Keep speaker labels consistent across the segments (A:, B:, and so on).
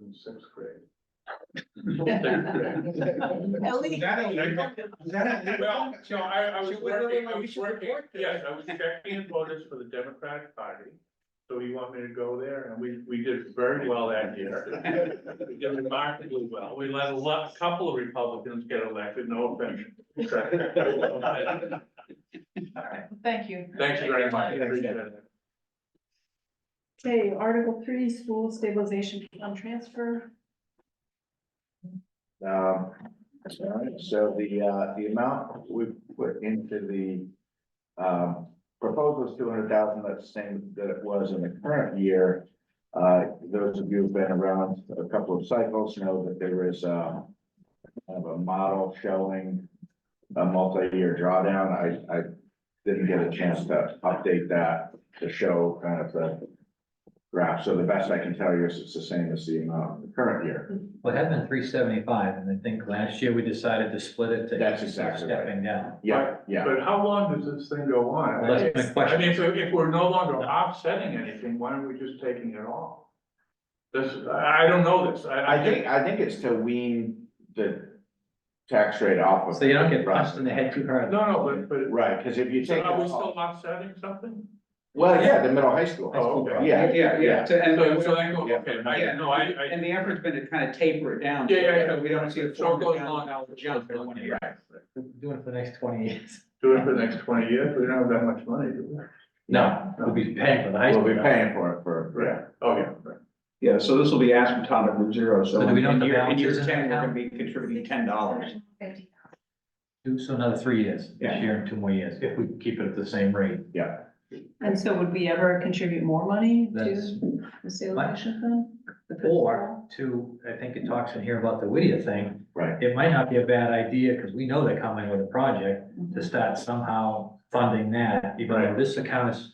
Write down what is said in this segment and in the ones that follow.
A: in sixth grade.
B: Ellie.
A: Well, so I, I was
C: Should we really-
A: working, I
C: we
A: was
C: should
A: working,
C: report that.
A: yes, I was checking in voters for the Democratic Party. So you want me to go there? And we, we did very well that year. We did remarkably well. We let a lot, a couple of Republicans get elected, no offense. Thank
B: Thank you.
A: you very much. Appreciate it.
B: Okay, Article three, school stabilization fund transfer.
D: Um, all right, so the, uh, the amount we put into the, um, proposal is two hundred thousand, that's the same that it was in the current year. Uh, those of you who've been around a couple of cycles know that there is, um, kind of a model showing a multi-year drawdown. I, I didn't get a chance to update that to show kind of the graph. So the best I can tell you is it's the same as the amount in the current year.
E: Well, it had been three seventy-five, and I think last year we decided to split it to.
D: That's exactly right.
E: Stepping down.
D: Yeah, yeah.
A: But how long does this thing go on?
E: Well, that's my
A: I mean,
E: question.
A: if, if we're no longer offsetting anything, why aren't we just taking it off? This, I I don't know this, I,
D: I think, I think it's to wean the tax rate off of.
E: So you don't get punched in the head too hard.
A: No, no, but, but
D: Right, because if you
A: so
D: take,
A: are we
D: it off-
A: still offsetting something?
D: well, yeah, the middle high school,
E: High school
A: okay.
E: problem.
D: yeah,
C: Yeah, yeah, so, and,
A: So, so I go,
D: yeah.
A: okay, I,
C: Yeah.
A: no, I, I.
C: and the effort's been to kind of taper it down.
A: Yeah, yeah,
C: so
A: yeah.
C: We don't see a
A: So
C: four
A: it goes
C: hundred thousand dollar
A: on.
C: jump in one year.
E: Doing it for the next twenty years.
A: Do it for the next twenty years, we don't have that much money, do we?
E: No, we'll be paying for the high
D: we'll
E: school.
D: be paying for it for.
A: Right, oh, yeah, right.
C: Yeah, so this will be asymptotic with zero,
E: So do we know
C: in
E: what the
C: year- in
E: balance
C: year
E: is in that
C: 10, We're gonna
E: account?
C: be contributing ten dollars.
B: Fifty.
E: Do so another three years,
C: Yeah.
E: this year and two more years, if we keep it at the same rate.
D: Yeah,
B: And so would we ever contribute more money
E: That's-
B: to the stabilization fund? The
E: Or to, I think it talks in here about the Whittier thing,
D: right,
E: it might not be a bad idea, because we know they're coming with a project, to start somehow funding that, even though
A: Right.
E: this account is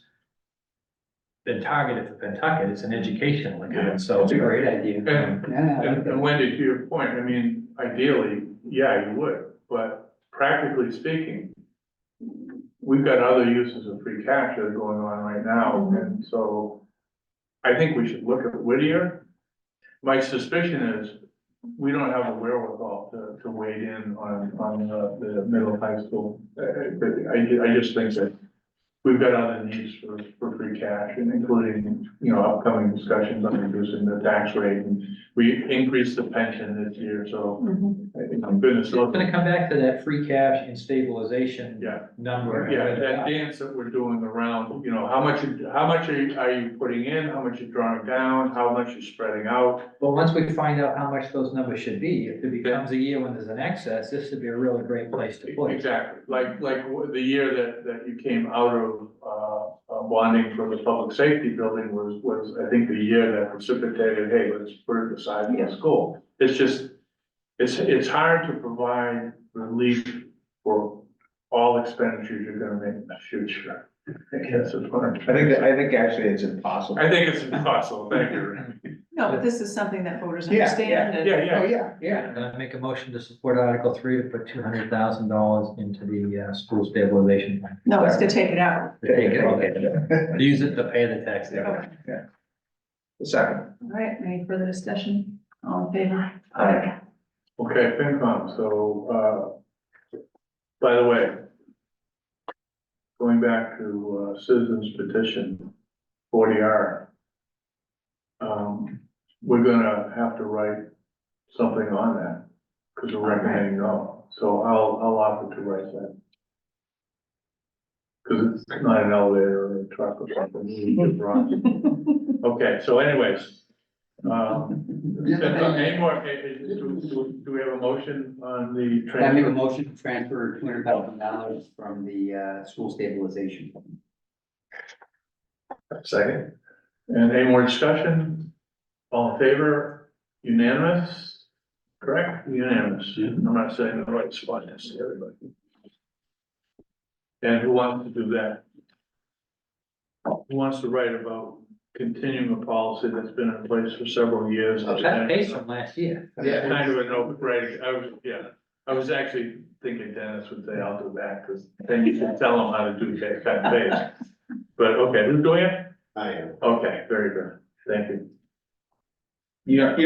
E: been targeted for Pentucket, it's an educational
A: Yeah.
E: account, so.
C: It's a great idea.
A: And, and
C: Yeah.
A: and Wendy, to your point, I mean, ideally, yeah, you would, but practically speaking, we've got other uses of free cash that are going on right now, and so I think we should look at Whittier. My suspicion is, we don't have a wherewithal to, to wade in on, on the, the middle high school. I, I, I just think that we've got other needs for, for free cash, and including, you know, upcoming discussions on reducing the tax rate, and we increased the pension this year, so,
B: Mhm.
A: I think I'm goodness,
E: So
A: look,
E: it's gonna come back to that free cash and stabilization.
A: Yeah.
E: Number.
A: yeah, that dance that we're doing around, you know, how much, you- how much are you, are you putting in, how much you're drawing down, how much you're spreading out,
E: But once we find out how much those numbers should be, if it becomes a year when there's an excess, this would be a really great place to put it.
A: Exactly, like, like w- the year that, that you came out of, uh, uh, bonding for the public safety building was, was, I think, the year that precipitated, hey, let's put it aside in the school. It's just, it's, it's hard to provide relief for all expenditures you're gonna make in the future. I guess is what I'm
C: I
A: trying
C: think,
A: to
C: that
A: say.
C: I think actually it's impossible.
A: I think it's impossible, thank you. Rick.
B: No, but this is something that voters
C: Yeah, yeah,
B: understand and.
A: Yeah,
C: Oh,
A: yeah,
C: yeah, yeah.
E: And I make a motion to support Article three to put two hundred thousand dollars into the uh, school stabilization. fund.
B: No, it's to take it out.
E: To take it out. Use it to pay the taxes.
B: Okay.
C: The second.
B: All right, any further discussion? All in favor?
E: Aye.
A: okay, FinCom, so, uh, by the way, going back to, uh, citizens petition, forty R. Um, we're gonna have to write something on that, because we're recommending no, so I'll, I'll offer to write that. Because it's not an elevator or a truck or something, we need to run. okay, so anyways, um, any more, eh, eh, do, do, do we have a motion on the
F: I make a
A: transfer?
F: motion to transfer two hundred thousand dollars from the uh school stabilization. fund.
A: Second. And any more discussion? All in favor? Unanimous? Correct? Unanimous. I'm not saying the right spot necessarily, but. And who wants to do that? Who wants to write about continuing a policy that's been in place for several years?
E: That pays from last year.
A: Yeah, kind of a no, right, I was, yeah, I was actually thinking Dennis would say, I'll do that, because then you can tell him how to do that, that page. But, okay, who's doing it?
F: I am.
A: Okay, very good, thank you.
C: You know,